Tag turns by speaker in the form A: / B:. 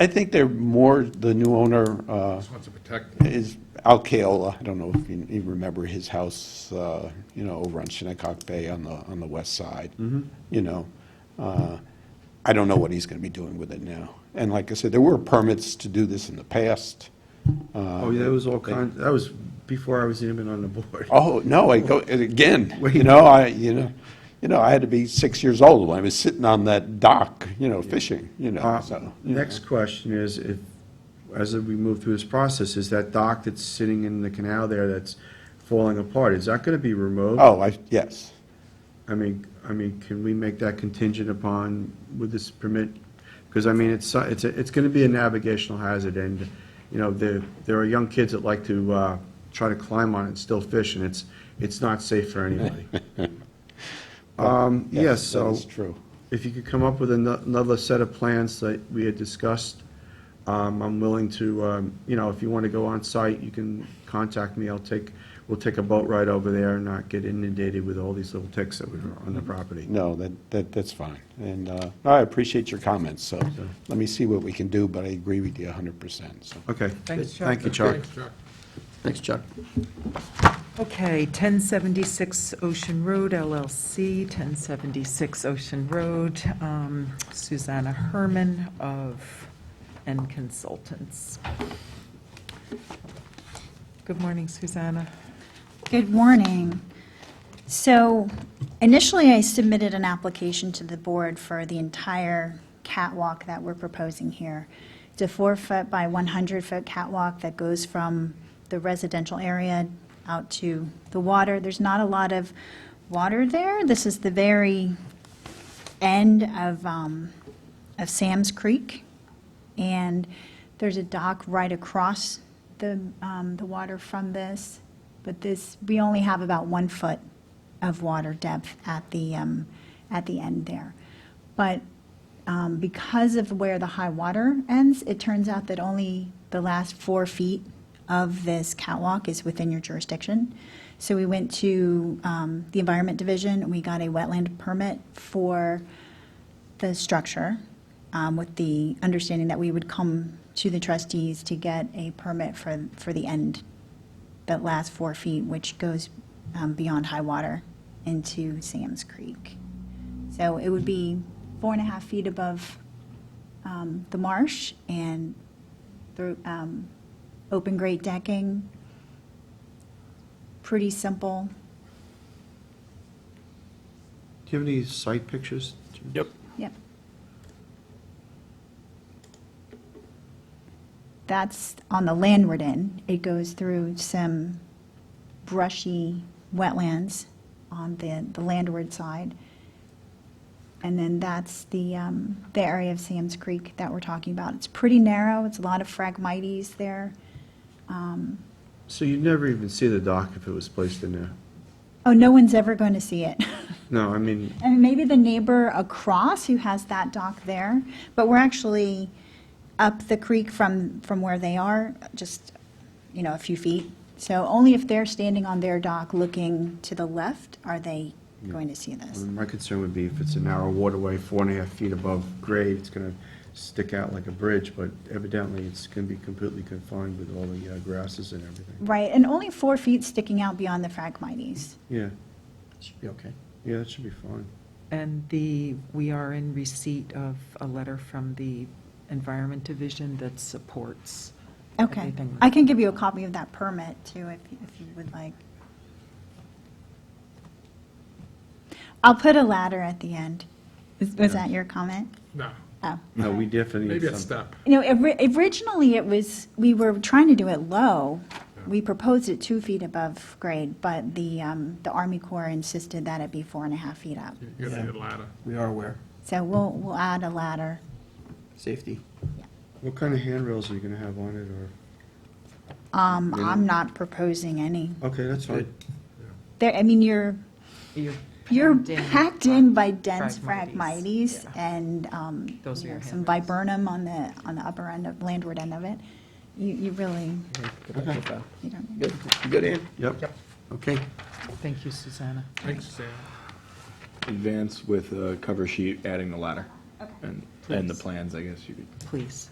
A: I think they're more, the new owner uh,
B: Just wants to protect it.
A: is Al Kaola. I don't know if you you remember his house, uh, you know, over on Shinnecock Bay on the, on the west side.
C: Mm-hmm.
A: You know, Uh, I don't know what he's going to be doing with it now. And like I said, there were permits to do this in the past.
C: Oh, yeah, that was all kind, that was before I was even on the board.
A: Uh, Oh, no, I go, and again, you know, I, you know, you know, I had to be six years old when I was sitting on that dock, you know, fishing, you know,
C: Uh,
A: so. you know.
C: Next question is, if, as we move through this process, is that dock that's sitting in the canal there that's falling apart, is that gonna be removed?
A: Oh, I, yes.
C: I mean, I mean, can we make that contingent upon, with this permit? Because, I mean, it's, so- it's, a- it's gonna be a navigational hazard, and, you know, there, there are young kids that like to, uh, try to climb on it and still fish, and it's, it's not safe for anybody. Um, yes, so.
A: That is true.
C: If you could come up with ano- another set of plans that we had discussed, um, I'm willing to, um, you know, if you want to go on site, you can contact me. I'll take, we'll take a boat ride over there and not get inundated with all these little ticks that were on the property.
A: No, that, that, that's fine. And uh, I appreciate your comments, so let me see what we can do, but I agree with you 100%, so.
C: Okay.
D: Thanks, Chuck.
C: Thank you, Chuck.
B: Thanks, Chuck.
E: Thanks, Chuck.
D: Okay, 1076 Ocean Road LLC, 1076 Ocean Road, um, Susanna Herman of N Consultants. Good morning, Susanna.
F: Good morning. So initially, I submitted an application to the board for the entire catwalk that we're proposing here. It's a four-foot by 100-foot catwalk that goes from the residential area out to the water. There's not a lot of water there. This is the very end of, um, of Sam's Creek. And there's a dock right across the, um, the water from this. But this, we only have about one foot of water depth at the, um, at the end there. But, um, because of where the high water ends, it turns out that only the last four feet of this catwalk is within your jurisdiction. So we went to, um, the Environment Division, and we got a wetland permit for the structure um, with the understanding that we would come to the trustees to get a permit for, for the end, that last four feet, which goes um, beyond high water into Sam's Creek. So it would be four and a half feet above um, the marsh and through um, open grate decking. Pretty simple.
C: Do you have any site pictures?
E: Yep.
F: Yep. That's on the landward end. It goes through some brushy wetlands on the, the landward side. And then that's the, um, the area of Sam's Creek that we're talking about. It's pretty narrow. It's a lot of phragmites there.
C: So you'd never even see the dock if it was placed in there?
F: Oh, no one's ever going to see it.
C: No, I mean,
F: And maybe the neighbor across who has that dock there, but we're actually up the creek from, from where they are, just, you know, a few feet. So only if they're standing on their dock looking to the left are they going to see this.
C: my concern would be if it's a narrow waterway, four and a half feet above grade, it's gonna stick out like a bridge, but evidently it's gonna be completely confined with all the uh, grasses and everything.
F: Right, and only four feet sticking out beyond the phragmites.
C: Yeah,
E: Should be okay.
C: yeah, that should be fine.
D: And the, we are in receipt of a letter from the Environment Division that supports
F: Okay.
D: everything.
F: I can give you a copy of that permit too, if, if you would like. I'll put a ladder at the end. Was was that your comment?
B: No,
F: Oh.
C: No, we definitely. need
B: maybe a
C: some-
B: step.
F: You know, ori- originally it was, we were trying to do it low. We proposed it two feet above grade, but the, um, the Army Corps insisted that it be four and a half feet up.
B: You gotta hit a ladder.
E: We are aware.
F: So we'll, we'll add a ladder.
E: Safety.
C: What kind of handrails are you gonna have on it,
F: Um, I'm not proposing any.
C: or, okay, that's fine.
F: There, I mean, you're,
D: You're
F: you're
D: packed in.
F: packed in by dense
D: Phragmites,
F: phragmites
D: yeah.
F: and, um,
D: Those
F: you
D: are
F: know,
D: your
F: some
D: handrails.
F: viburnum on the, on the upper end of, landward end of it. You, you really, you don't.
E: Good, You good, Ann?
C: Yep, okay.
D: Thank you, Susanna.
B: Thanks, Sam.
G: advance with a cover sheet adding the ladder. And, and the plans, I guess you could.
D: Please.